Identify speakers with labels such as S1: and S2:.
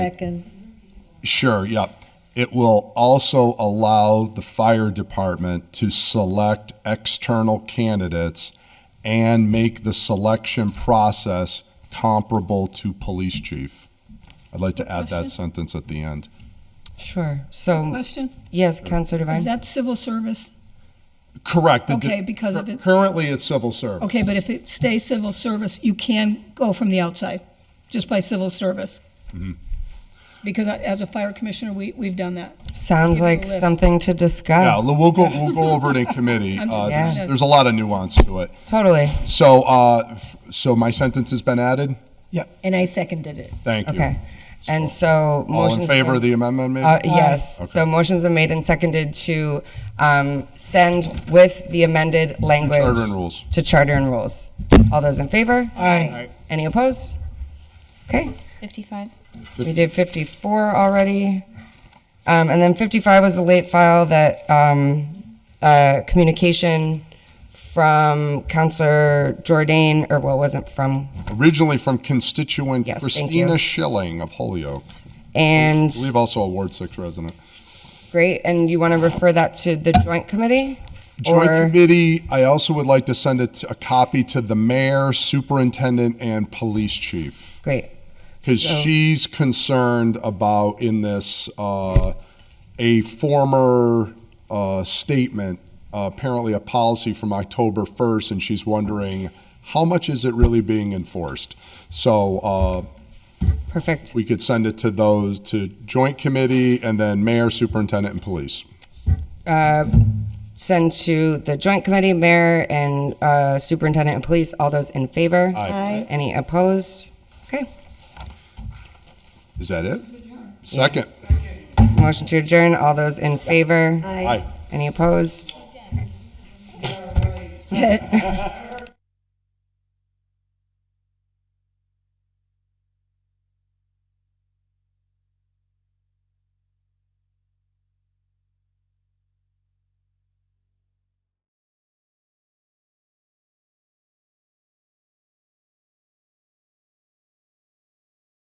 S1: Second,
S2: Sure, yep. It will also allow the fire department to select external candidates and make the selection process comparable to police chief. I'd like to add that sentence at the end.
S3: Sure. So,
S4: Question,
S3: yes, Counselor
S4: is
S3: Devine?
S4: that civil service?
S2: Correct. the di-
S4: Okay, because of it-
S2: Currently, it's civil service.
S4: Okay, but if it stays civil service, you can go from the outside, just by civil service. Because I- as a fire commissioner, we, we've done that.
S3: Sounds
S4: Give it a
S3: like
S4: list.
S3: something to
S2: Yeah,
S3: discuss.
S2: we'll go, we'll go over it in committee.
S4: I'm just
S2: Uh,
S3: Yeah.
S2: There's there's a lot of nuance to it.
S3: Totally.
S2: So, uh, f- so my sentence has been added?
S1: and I seconded it.
S2: Thank you.
S3: Okay. And so
S2: All in
S3: motions.
S2: favor of the amendment? made?
S3: Uh, Yes. So motions are made and seconded to um, send with the amended language.
S2: Charter and rules.
S3: To charter and rules. All those in favor? Aye. Any opposed? Okay.
S5: 55.
S3: We did 54 already. Um, and then 55 was a late file that um, uh, communication from Counselor Jordan, or well, it wasn't from,
S2: Originally from constituent
S3: Yes, thank
S2: Christina
S3: you.
S2: Schilling of Holyoke.
S3: and
S2: I believe also a Ward Six resident.
S3: great. And you want to refer that to the joint committee?
S2: Joint
S3: Or-
S2: committee, I also would like to send it, a copy to the mayor, superintendent, and police chief.
S3: Great.
S2: Because
S3: So-
S2: she's concerned about in this, uh, a former, uh, statement, uh, apparently a policy from October first, and she's wondering, how much is it really being enforced? So, uh,
S3: Perfect.
S2: we could send it to those, to joint committee, and then mayor, superintendent, and police.
S3: Uh, Send to the joint committee, mayor, and uh, superintendent and police. All those in favor?
S2: Aye.
S3: Any opposed? Okay.
S2: Is that it? Second.
S3: Motion to adjourn. All those in favor?
S2: Aye.
S3: Any opposed?